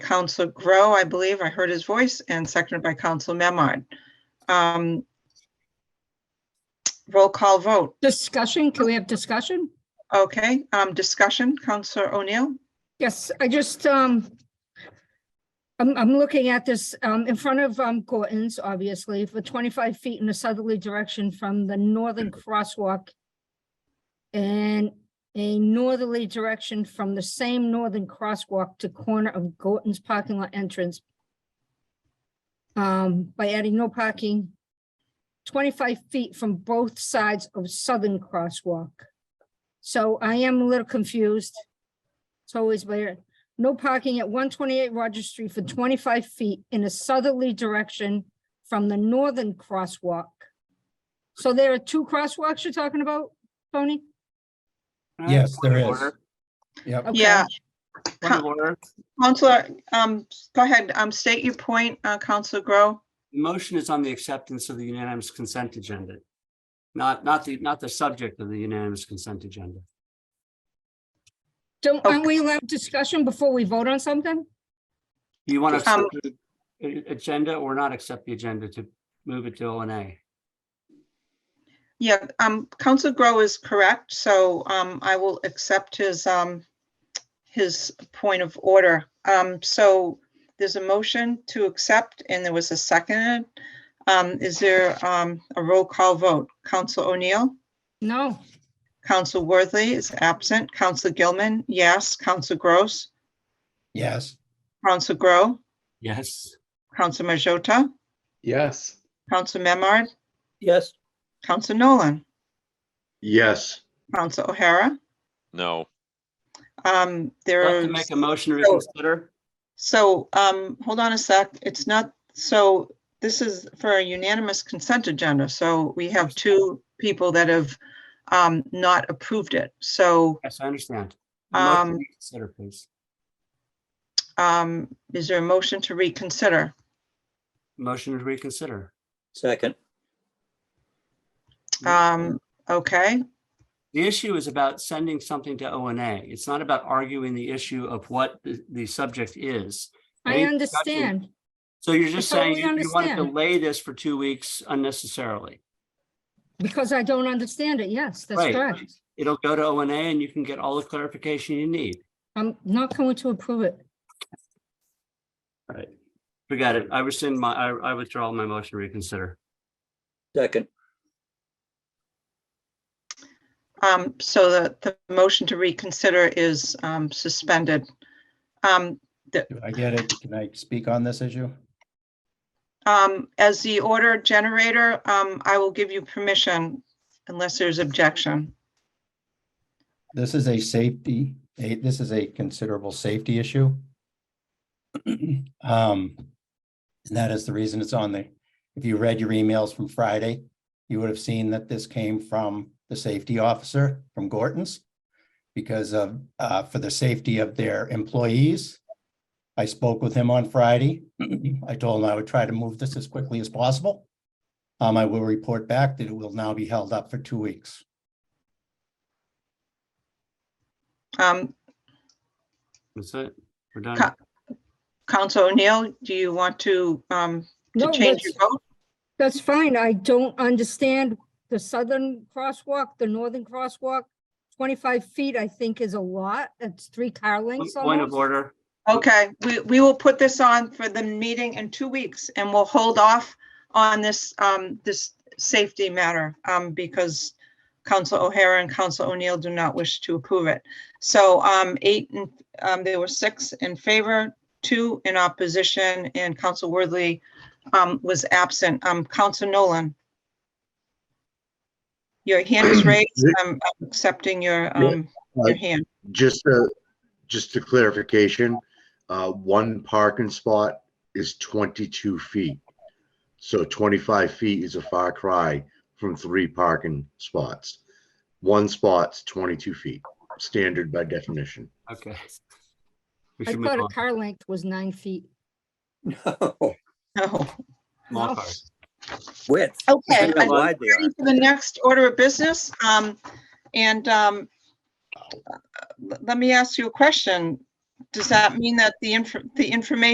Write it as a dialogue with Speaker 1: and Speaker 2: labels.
Speaker 1: Council Grow, I believe. I heard his voice, and seconded by Council Memard. Um, Roll call vote.
Speaker 2: Discussion, can we have discussion?
Speaker 1: Okay, um, discussion, Counselor O'Neill?
Speaker 2: Yes, I just, um, I'm, I'm looking at this, um, in front of, um, Gorton's, obviously, for twenty-five feet in a southerly direction from the northern crosswalk and a northerly direction from the same northern crosswalk to corner of Gorton's parking lot entrance. Um, by adding no parking twenty-five feet from both sides of southern crosswalk. So I am a little confused. It's always where, no parking at one twenty-eight Rogers Street for twenty-five feet in a southerly direction from the northern crosswalk. So there are two crosswalks you're talking about, Tony?
Speaker 3: Yes, there
Speaker 4: Point of
Speaker 3: is.
Speaker 4: order,
Speaker 3: Yep.
Speaker 2: Okay.
Speaker 1: Yeah.
Speaker 4: point of order.
Speaker 1: Counselor, um, go ahead, um, state your point, uh, Counselor Grow.
Speaker 4: The Motion is on the acceptance of the unanimous consent agenda. Not, not the, not the subject of the unanimous consent agenda.
Speaker 2: Don't, aren't we allowed discussion before we vote on something?
Speaker 4: Do you want to
Speaker 1: Um,
Speaker 4: accept the a- agenda or not accept the agenda to move it to O and A?
Speaker 1: Yeah, um, Counselor Grow is correct, so, um, I will accept his, um, his point of order. Um, so there's a motion to accept and there was a second. Um, is there, um, a roll call vote? Counsel O'Neill,
Speaker 2: No,
Speaker 1: Counsel Worthley is absent, Counsel Gilman, yes, Counsel Gross,
Speaker 3: Yes.
Speaker 1: Counsel Grow,
Speaker 4: Yes.
Speaker 1: Counsel Majota,
Speaker 5: Yes.
Speaker 1: Counsel Memard,
Speaker 6: Yes.
Speaker 1: Counsel Nolan,
Speaker 5: Yes.
Speaker 1: Counsel O'Hara.
Speaker 7: No,
Speaker 1: Um,
Speaker 4: Do
Speaker 1: there
Speaker 4: I have
Speaker 1: are,
Speaker 4: to make a motion to reconsider?
Speaker 1: so, um, hold on a sec, it's not, so this is for a unanimous consent agenda, so we have two people that have um, not approved it, so
Speaker 4: Yes, I understand. A motion to
Speaker 1: Um,
Speaker 4: reconsider, please.
Speaker 1: um, is there a motion to reconsider?
Speaker 4: Motion to reconsider.
Speaker 6: Second.
Speaker 1: Um, okay,
Speaker 4: The issue is about sending something to O and A. It's not about arguing the issue of what the, the subject is.
Speaker 2: I
Speaker 4: Any
Speaker 2: understand.
Speaker 4: So you're just
Speaker 2: I
Speaker 4: saying
Speaker 2: totally
Speaker 4: you you want to
Speaker 2: understand.
Speaker 4: delay this for two weeks unnecessarily.
Speaker 2: Because I don't understand it. Yes, that's
Speaker 4: Right.
Speaker 2: correct.
Speaker 4: It'll go to O and A and you can get all the clarification you need.
Speaker 2: I'm not going to approve it.
Speaker 4: Forget it. I rescind my, I, I withdraw my motion to reconsider.
Speaker 6: Second.
Speaker 1: um, so the, the motion to reconsider is um, suspended. Um,
Speaker 3: Do I get it? Can I speak on this issue?
Speaker 1: Um, as the order generator, um, I will give you permission unless there's objection.
Speaker 3: This is a safety, a- this is a considerable safety issue. Um, and that is the reason it's on the, if you read your emails from Friday, you would have seen that this came from the safety officer from Gorton's because of, uh, for the safety of their employees. I spoke with him on Friday. I told him I would try to move this as quickly as possible. Um, I will report back that it will now be held up for two weeks.
Speaker 1: Um,
Speaker 4: That's it. We're done.
Speaker 1: Cut. Counsel O'Neill, do you want to, um, to
Speaker 2: No,
Speaker 1: change
Speaker 2: that's,
Speaker 1: your vote?
Speaker 2: that's fine. I don't understand the southern crosswalk, the northern crosswalk. Twenty-five feet, I think, is a lot. It's three car lengths
Speaker 4: Point of
Speaker 2: almost.
Speaker 4: order.
Speaker 1: Okay, we, we will put this on for the meeting in two weeks and we'll hold off on this, um, this safety matter, um, because Counsel O'Hara and Counsel O'Neill do not wish to approve it. So, um, eight, and um, there were six in favor, two in opposition, and Counsel Worthley, um, was absent. Um, Counsel Nolan? Your hand is raised. I'm I'm accepting your, um, your hand.
Speaker 5: Just a, just a clarification, uh, one parking spot is twenty-two feet. So twenty-five feet is a far cry from three parking spots. One spot's twenty-two feet, standard by definition.
Speaker 4: Okay. We
Speaker 2: I
Speaker 4: should move
Speaker 2: thought a
Speaker 4: on.
Speaker 2: car length was nine feet.
Speaker 6: No.
Speaker 1: No.
Speaker 4: Small
Speaker 2: No.
Speaker 4: car.
Speaker 6: Width.
Speaker 1: Okay,
Speaker 6: Look
Speaker 1: I
Speaker 6: how wide they
Speaker 1: ready
Speaker 6: are.
Speaker 1: for the next order of business. Um, and, um, let me ask you a question. does that mean that the inf, the information